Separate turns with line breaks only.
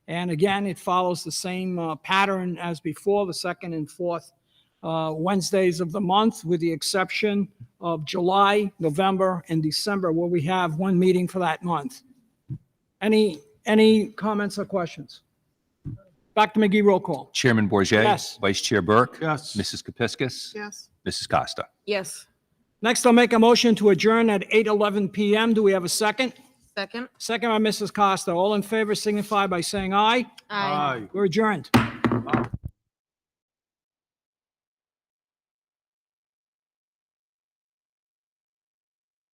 And again, it follows the same uh, pattern as before, the second and fourth uh, Wednesdays of the month, with the exception of July, November, and December, where we have one meeting for that month. Any, any comments or questions? Dr. McGee, roll call.
Chairman Bourget,
Yes.
Vice Chair Burke.
Yes.
Mrs. Kepiscus.
Yes.
Mrs. Costa.
Yes.
Next, I'll make a motion to adjourn at 8:11 PM. Do we have a second?
Second?
Second by Mrs. Costa. All in favor signify by saying aye.
Aye.
We're adjourned.